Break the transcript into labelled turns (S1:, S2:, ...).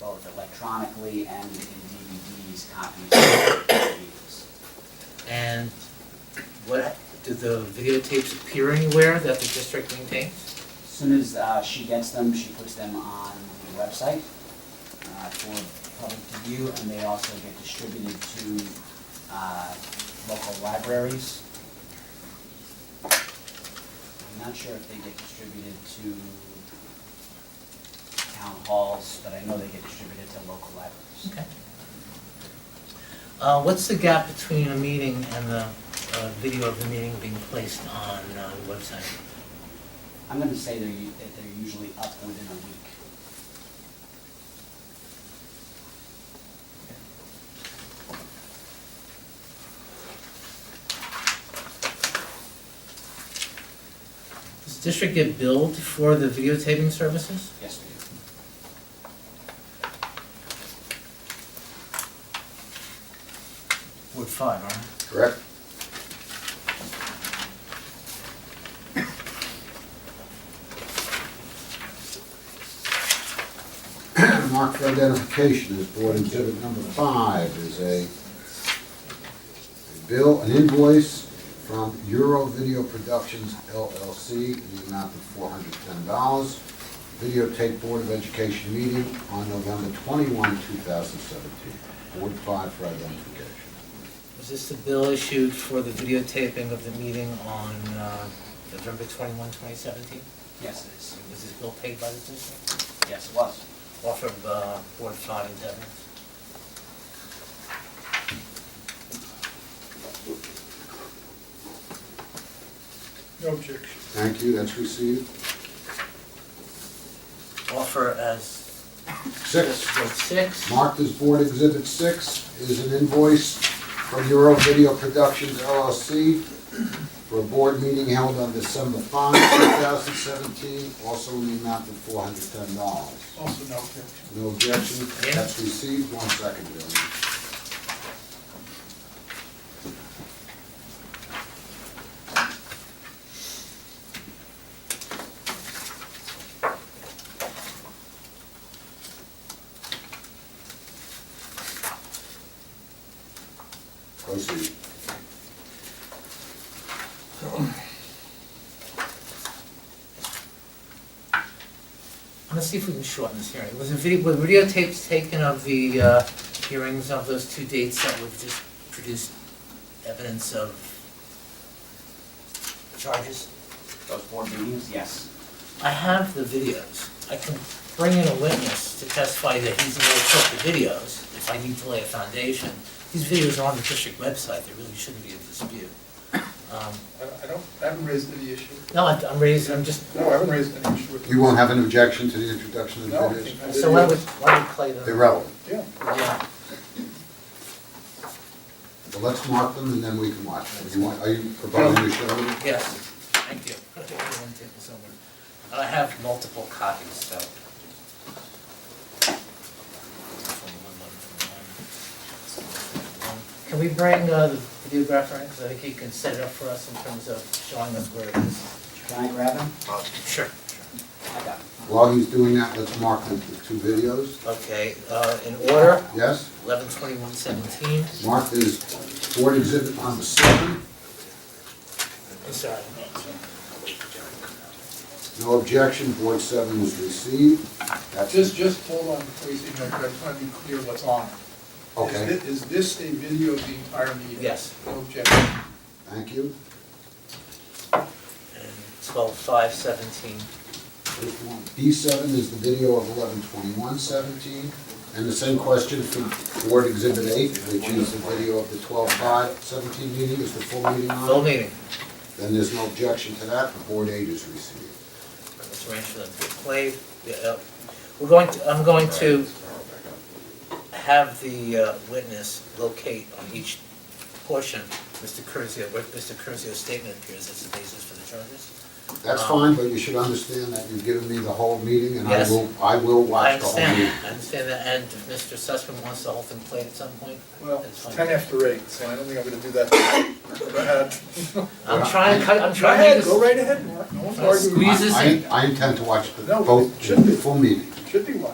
S1: both electronically and in DVDs, copies of DVDs.
S2: And what, do the videotapes appear anywhere that the district maintains?
S1: As Soon as uh, she gets them, she puts them on the website uh, for public to view, and they also get distributed to uh, local libraries. I'm not sure if they get distributed to town halls, but I know they get distributed to local libraries.
S2: Okay. Uh, what's the gap between a meeting and the, uh, video of the meeting being placed on, uh, the website?
S1: I'm gonna say they're, u- that they're usually up within a week.
S2: Does the district get billed for the videotaping services?
S1: Yes, we do.
S2: We're fine, aren't we?
S3: Correct. Mark for identification is board exhibit number five is a a bill, an invoice from Euro Video Productions LLC in the amount of four hundred ten dollars. Videotape Board of Education meeting on November twenty-one, two thousand seventeen. Board five for identification.
S2: Was this the bill issued for the videotaping of the meeting on, uh, November twenty-one, twenty seventeen?
S1: Yes, it is.
S2: Was this bill paid by the district?
S1: Yes, it was.
S2: Offer of, uh, Board of Sean and Devin?
S4: No objection.
S3: Thank you, that's received.
S2: Offer as
S3: Six,
S2: Bill six.
S3: marked as Board Exhibit Six, is an invoice from Euro Video Productions LLC for a board meeting held on December 5, 2017, also in the amount of $410.
S4: Also no objection.
S3: No objection,
S2: Yeah.
S3: that's received, one second, gentlemen. Proceed.
S2: I'm gonna see if we can shorten this hearing. Was the video, were videotapes taken of the, uh, hearings of those two dates that would just produce evidence of charges?
S1: Those board meetings, yes.
S2: I have the videos. I can bring in a witness to testify that he's the one who took the videos, if I need to lay a foundation. These videos are on the district website, there really shouldn't be a dispute. Um,
S4: I- I don't, I haven't raised any issue.
S2: No, I- I'm raising, I'm just,
S4: No, I haven't raised any issue with
S3: You won't have an objection to the introduction of the
S4: No, I think uh,
S3: videos?
S4: I
S2: so why
S4: did.
S2: would, why would play them?
S3: They're relevant.
S4: Yeah,
S2: Yeah.
S3: Well, let's mark them and then we can watch them. You want- Are you providing your show?
S2: Yes, thank you. Put it on one table somewhere. I have multiple copies, so. Can we bring uh, the videographer in, so I think he can set it up for us in terms of showing us where it is?
S1: Can I grab them?
S2: Uh, Sure.
S1: I got them.
S3: While he's doing that, let's mark the the two videos.
S2: Okay, uh, in order,
S3: Yes,
S2: eleven twenty-one seventeen.
S3: marked is board exhibit number seven.
S2: I'm sorry.
S3: No objection, board seven was received. That's
S4: just,
S3: it.
S4: just hold on before you say no, but I just want to be clear what's on it. Is
S3: Okay,
S4: thi- Is this a video of the entire meeting?
S2: Yes.
S4: No objection.
S3: thank you.
S2: And twelve five seventeen.
S3: B seven is the video of eleven twenty-one seventeen. And the same question for board exhibit eight, which is the video of the twelve five seventeen meeting, is the full meeting
S2: Full
S3: on?
S2: meeting.
S3: Then there's no objection to that, the board eight is received.
S2: Mr. Rancho, play, uh, we're going to, I'm going to have the uh, witness locate on each portion, Mr. Curzio, where Mr. Curzio's statement appears as the basis for the charges.
S3: That's fine, but you should understand that you've given me the whole meeting, and I
S2: Yes.
S3: will, I will
S2: I
S3: watch the whole
S2: understand
S3: meeting.
S2: that, I understand that, and if Mr. Sussman wants the whole thing played at some point,
S4: Well,
S2: that's
S4: it's
S2: fine.
S4: ten after eight, so I don't think I'm gonna do that. Go ahead.
S2: I'm trying, to cut- I'm
S4: Go
S2: trying
S4: ahead, go
S2: to,
S4: right ahead, Mark. No one's
S2: I'll
S4: arguing.
S2: squeeze this
S3: I-
S2: in.
S3: I I intend to watch the
S4: No,
S3: both,
S4: it should be.
S3: the full meeting.
S4: Should be